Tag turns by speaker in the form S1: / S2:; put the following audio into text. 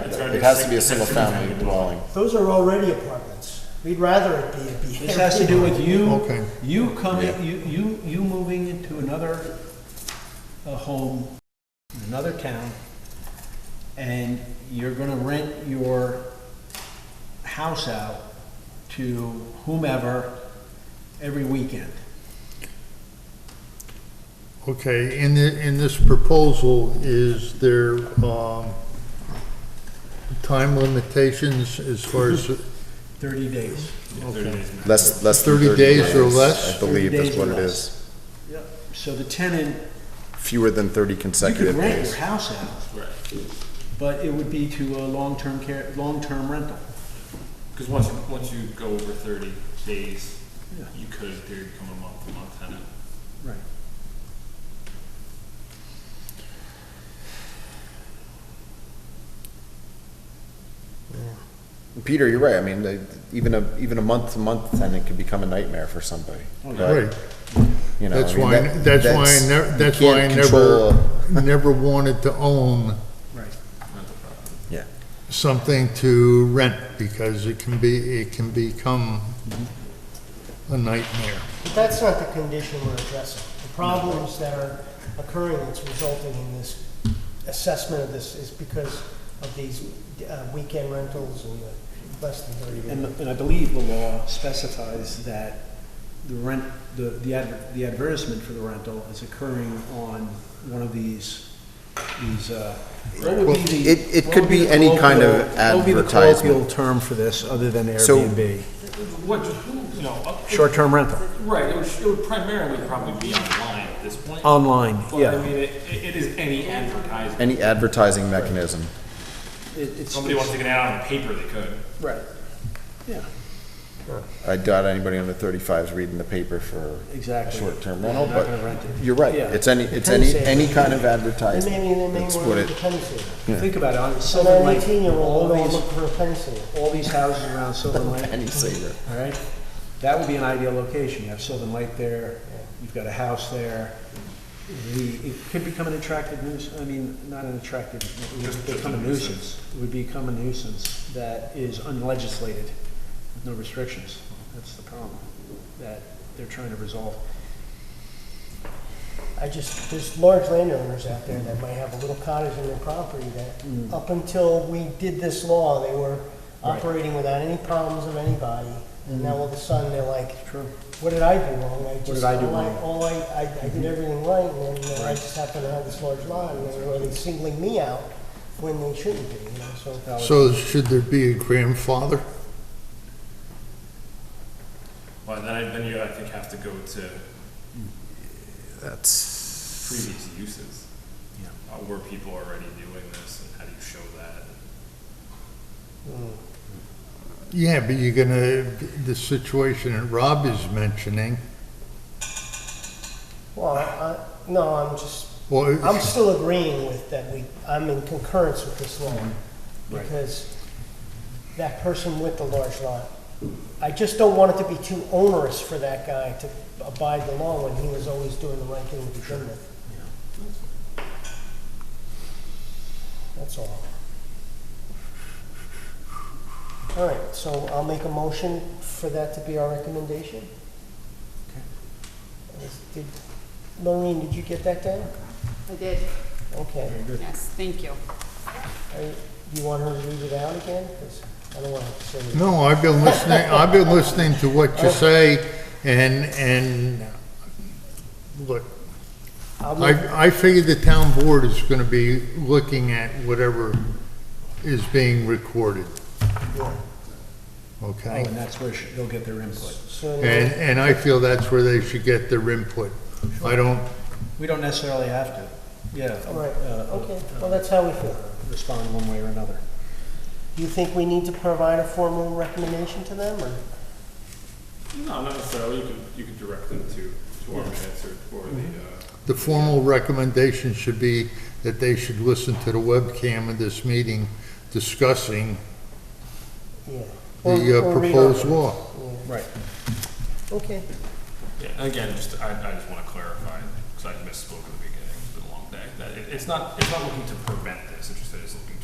S1: It has to be a single-family dwelling.
S2: Those are already apartments. We'd rather it be a B.
S3: This has to do with you,
S4: Okay.
S3: you coming,
S1: Yeah.
S3: you, you, you moving into another, uh home, in another town, and you're gonna rent your house out to whomever every weekend.
S4: Okay, in the, in this proposal, is there, um, time limitations as far as,
S3: Thirty days.
S4: okay,
S1: Less, less than
S4: 30
S1: 30
S4: days
S1: days.
S4: or less?
S1: I believe
S3: 30
S1: is
S3: days
S1: what
S3: or
S1: it
S3: less.
S1: is.
S3: So the tenant,
S1: Fewer than 30
S3: you could
S1: consecutive
S3: rent your
S1: days.
S3: house out. Right. But it would be to a long-term care, long-term rental.
S5: Because once, once you go over thirty days,
S3: Yeah.
S5: you could, in theory, become a month-to-month tenant.
S3: Right.
S1: Peter, you're right. I mean, they- even a, even a month-to-month tenant could become a nightmare for somebody.
S3: Oh,
S4: right.
S1: You know, I
S4: That's
S1: mean,
S4: why,
S1: that-
S4: that's why, I never.
S1: you
S4: that's why I
S1: can't control
S4: never,
S1: a-
S4: never wanted to own
S3: Right.
S1: Yeah.
S4: something to rent, because it can be, it can become a nightmare.
S2: But that's not the condition we're addressing. The problems that are occurring that's resulting in this assessment of this is because of these uh, weekend rentals and the less than thirty days.
S3: And, and I believe the law specifies that the rent, the, the adver- the advertisement for the rental is occurring on one of these, these, uh. what would be the-
S1: It- it
S3: what
S1: could
S3: would the
S1: be any kind of
S3: colloquial- What would be the
S1: advertisement.
S3: colloquial term for this, other than
S1: So-
S3: Airbnb?
S5: What, you know, up-
S3: Short-term rental,
S5: Right, it would, it would primarily probably be online at this point.
S3: online,
S5: But, I
S3: Oh, yeah.
S5: mean, it, it is any advertisement.
S1: Any advertising mechanism.
S3: It- It's,
S5: Somebody wants to get out on paper, they could.
S3: right, yeah,
S1: I doubt anybody under 35 is reading the paper for a
S3: exactly.
S1: short-term rental,
S3: They're not gonna
S1: but
S3: rent it.
S1: you're right.
S3: Yeah.
S1: It's any, it's
S2: Depends
S1: any,
S2: if-
S1: any kind of
S2: They
S1: advertising.
S2: may, they may
S1: That's
S2: want
S1: what
S2: to
S1: it,
S2: get a tennis table.
S3: Think about it, on
S2: So
S3: Silver
S2: an
S3: Lake,
S2: eighteen-year-old
S3: all
S2: will go
S3: these,
S2: look for a tennis table.
S3: all these houses around Silver Lake.
S1: penny saver.
S3: All right, that would be an ideal location, you have Sylvan Lake there, you've got a house there. The, it could become an attractive nuisance, I mean, not an attractive, it would become a nuisance. It would become a nuisance that is unlegislated, with no restrictions, that's the problem that they're trying to resolve.
S2: I just, there's large landowners out there that might have a little cottage in their property that, up until we did this law, they were
S3: Mm. Right. Mm.
S2: operating without any problems of anybody. And now all of a sudden, they're like,
S3: True.
S2: what did I do wrong? What
S3: did I do wrong? Mm-hmm.
S2: All I, I, I did everything right, and then uh, I just happened to have this large lot, and they're really singling me out when they shouldn't be, you know, so.
S4: So should there be a grandfather?
S5: Well, then, I- then you, I think, have to go to
S1: That's,
S5: previous uses.
S3: Yeah.
S5: Uh, Were people already doing this, and how do you show that?
S4: Yeah, but you're gonna, the situation that Rob is mentioning,
S2: Well, I, no, I'm just,
S4: well,
S2: I'm still agreeing with that we, I'm in concurrence with this law, because that person with the large lot, I just don't want it to be too onerous for that guy to abide the law when he was always doing the right thing to begin with. That's all. All right, so I'll make a motion for that to be our recommendation. Is- did- Maureen, did you get that down?
S6: I did,
S2: Okay.
S6: yes, thank you.
S2: Are you- Do you want her to read it out again? 'Cause I don't want to say it.
S4: No, I've been listening, I've been listening to what you say, and, and, look,
S2: I'll move-
S4: I, I figure the town board is gonna be looking at whatever is being recorded,
S2: yeah.
S3: Oh,
S4: okay?
S3: and that's where sh- they'll get their input.
S2: So,
S4: And, and I feel that's where they should get their input. I don't,
S3: We don't necessarily have to, yeah.
S2: All right,
S3: uh,
S2: okay, well, that's how we feel.
S3: Respond one way or another.
S2: Do you think we need to provide a formal recommendation to them, or?
S5: No, not necessarily, you can, you can direct them to, to our minutes or, or the,
S3: Mm-hmm.
S5: uh,
S4: the formal recommendation should be that they should listen to the webcam of this meeting discussing
S2: Yeah. Or-
S4: the uh,
S2: or read
S4: proposed
S2: on.
S4: law.
S3: Right.
S2: Okay,
S5: Yeah, and again, just, I, I just want to clarify, because I misspoke at the beginning, it's been a long day, that it, it's not, it's not looking to prevent this, it's just that it's looking